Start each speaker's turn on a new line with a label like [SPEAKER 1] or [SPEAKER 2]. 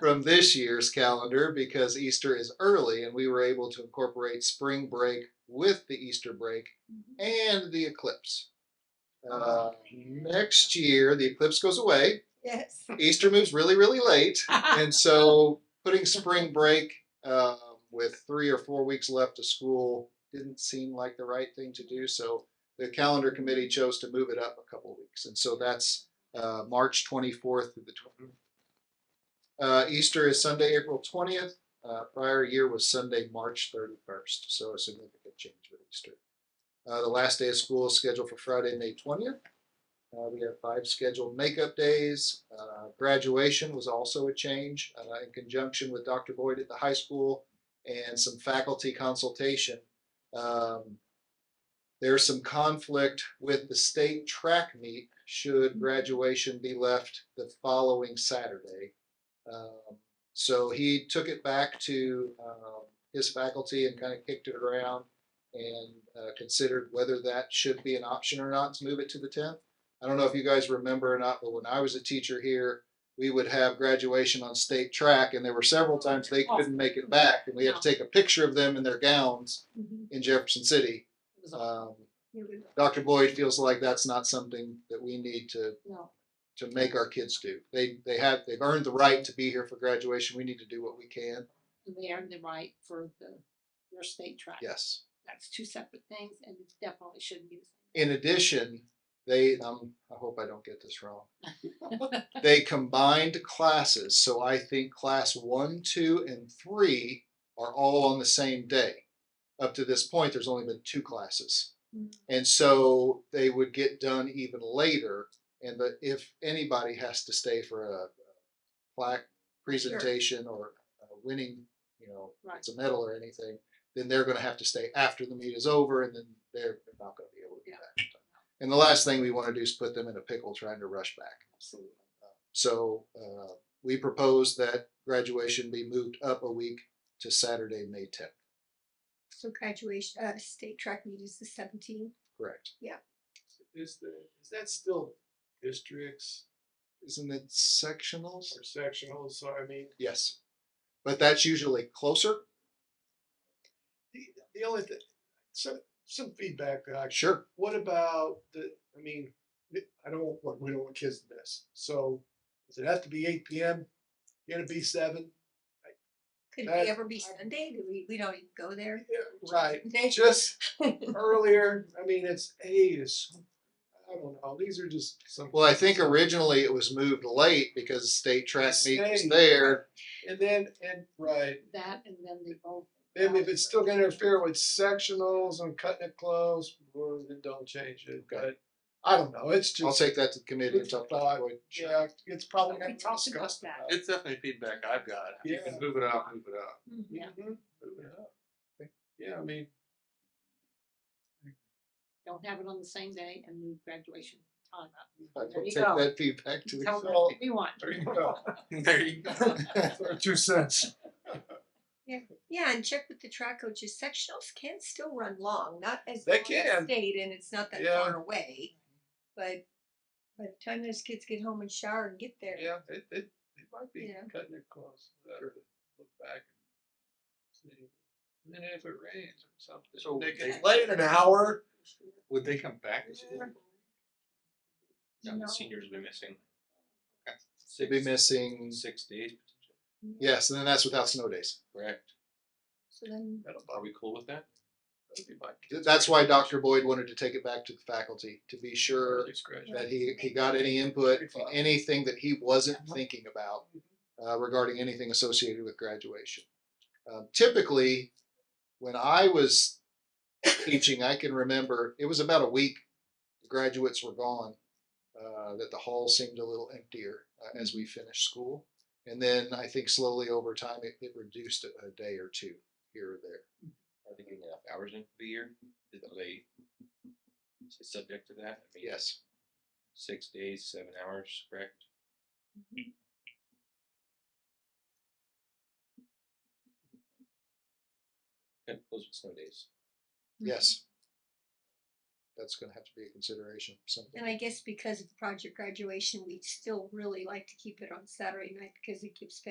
[SPEAKER 1] from this year's calendar because Easter is early and we were able to incorporate spring break with the Easter break and the eclipse. Uh, next year, the eclipse goes away.
[SPEAKER 2] Yes.
[SPEAKER 1] Easter moves really, really late. And so putting spring break um, with three or four weeks left of school didn't seem like the right thing to do. So the calendar committee chose to move it up a couple of weeks. And so that's uh, March 24th through the 20th. Uh, Easter is Sunday, April 20th. Uh, prior year was Sunday, March 31st. So a significant change with Easter. Uh, the last day of school is scheduled for Friday, May 20th. Uh, we have five scheduled makeup days. Uh, graduation was also a change uh, in conjunction with Dr. Boyd at the high school and some faculty consultation. Um, there's some conflict with the state track meet should graduation be left the following Saturday. Um, so he took it back to um, his faculty and kind of kicked it around and uh, considered whether that should be an option or not to move it to the 10th. I don't know if you guys remember or not, but when I was a teacher here, we would have graduation on state track, and there were several times they
[SPEAKER 3] Oh.
[SPEAKER 1] couldn't make it back, and we had to take a picture of them in their gowns
[SPEAKER 2] Mhm.
[SPEAKER 1] in Jefferson City.
[SPEAKER 3] It was awful.
[SPEAKER 1] Um, Dr. Boyd feels like that's not something that we need to
[SPEAKER 2] No.
[SPEAKER 1] to make our kids do. They they have they've earned the right to be here for graduation. We need to do what we can.
[SPEAKER 3] And they earned the right for the, their state track.
[SPEAKER 1] Yes.
[SPEAKER 3] That's two separate things and it definitely shouldn't be the
[SPEAKER 1] In addition, they um, I hope I don't get this wrong. they combined classes, so I think class one, two, and three are all on the same day. Up to this point, there's only been two classes,
[SPEAKER 3] Mm.
[SPEAKER 1] and so they would get done even later. And the, if anybody has to stay for a plaque presentation or a winning, you know,
[SPEAKER 3] Right.
[SPEAKER 1] it's a medal or anything, then they're going to have to stay after the meet is over, and then they're they're not going to be able to do
[SPEAKER 3] Yeah.
[SPEAKER 1] that. in time. And the last thing we want to do is put them in a pickle trying to rush back.
[SPEAKER 3] same.
[SPEAKER 1] So uh, we propose that graduation be moved up a week to Saturday, May 10th.
[SPEAKER 2] So graduation, uh, state track meet is the seventeenth.
[SPEAKER 1] Correct.
[SPEAKER 4] Is the, is that still districts
[SPEAKER 1] Isn't it sectionals?
[SPEAKER 4] or sectional, so I mean,
[SPEAKER 1] Yes. But that's usually closer.
[SPEAKER 4] the, the only thing, some, some feedback that I,
[SPEAKER 1] Sure.
[SPEAKER 4] what about the, I mean, th- I don't, want we don't want kids to miss, so does it have to be eight P M? Can it be seven?
[SPEAKER 2] Could
[SPEAKER 4] That-
[SPEAKER 2] it ever be Sunday? Do we, we don't even go there?
[SPEAKER 4] Yeah, Right,
[SPEAKER 2] They-
[SPEAKER 4] just earlier, I mean, it's eight is, I don't know, these are just some.
[SPEAKER 1] Well, I think originally it was moved late because state track meet was
[SPEAKER 4] Stayed.
[SPEAKER 1] there.
[SPEAKER 4] And then, and, right,
[SPEAKER 3] That and then they both.
[SPEAKER 4] then if it's still gonna interfere with sectionals and cutting it close, well, then don't change it,
[SPEAKER 1] Okay.
[SPEAKER 4] but I don't know, it's just.
[SPEAKER 1] I'll take that to the committee and
[SPEAKER 4] Good
[SPEAKER 1] talk to
[SPEAKER 4] thought.
[SPEAKER 1] Boyd. Sure.
[SPEAKER 4] Yeah, it's probably
[SPEAKER 3] We
[SPEAKER 4] not
[SPEAKER 3] talked about
[SPEAKER 4] discussed
[SPEAKER 3] that.
[SPEAKER 4] about.
[SPEAKER 5] It's definitely feedback I've got. If You
[SPEAKER 4] Yeah.
[SPEAKER 5] can move it up, move it up.
[SPEAKER 2] Mm-hmm.
[SPEAKER 3] Yeah,
[SPEAKER 4] Mhm. Move it up. Yeah, I mean,
[SPEAKER 3] don't have it on the same day and move graduation time
[SPEAKER 1] I
[SPEAKER 3] up. There
[SPEAKER 1] will
[SPEAKER 3] you
[SPEAKER 1] take
[SPEAKER 3] go.
[SPEAKER 1] that feedback to the
[SPEAKER 3] Tell them
[SPEAKER 1] committee.
[SPEAKER 3] what we want.
[SPEAKER 4] there you go.
[SPEAKER 5] There you go.
[SPEAKER 4] Two cents.
[SPEAKER 2] Yeah, and check with the track coaches. Sectionals can still run long, not as
[SPEAKER 4] They
[SPEAKER 2] long as
[SPEAKER 4] can.
[SPEAKER 2] state, and it's not that
[SPEAKER 4] Yeah.
[SPEAKER 2] far away. But by the time those kids get home and shower and get there,
[SPEAKER 4] Yeah, it, it, it might be
[SPEAKER 2] Yeah.
[SPEAKER 4] cutting it close. We'll have to Look back and see. And then if it rains or something.
[SPEAKER 5] So
[SPEAKER 4] They
[SPEAKER 5] they-
[SPEAKER 4] can lay it an hour.
[SPEAKER 5] Would they come back to
[SPEAKER 4] uh,
[SPEAKER 5] school?
[SPEAKER 3] No.
[SPEAKER 5] the seniors will be missing. Okay.
[SPEAKER 1] They'd be missing,
[SPEAKER 5] Six days,
[SPEAKER 1] yes, and then that's without snow days.
[SPEAKER 5] correct.
[SPEAKER 2] so then
[SPEAKER 4] That'll
[SPEAKER 5] Are
[SPEAKER 4] bother,
[SPEAKER 5] we cool with that?
[SPEAKER 4] that'll be my kid.
[SPEAKER 1] That's why Dr. Boyd wanted to take it back to the faculty to be sure
[SPEAKER 4] Early scratch.
[SPEAKER 1] that he, he got any input, and anything that he wasn't thinking about uh, regarding anything associated with graduation. Um, typically, when I was teaching, I can remember it was about a week. The graduates were gone. Uh, that the hall seemed a little emptier uh, as we finished school, and then I think slowly over time it, it reduced a, a day or two here or there.
[SPEAKER 5] Are they getting enough hours in for the year? Is it late? Is it subject to that? I mean,
[SPEAKER 1] Yes,
[SPEAKER 5] Six days, seven hours, correct? Okay, close with snow days.
[SPEAKER 3] Mm-hmm.
[SPEAKER 1] yes, that's going to have to be a consideration. Something.
[SPEAKER 2] And I guess because of project graduation, we'd still really like to keep it on Saturday night because it gives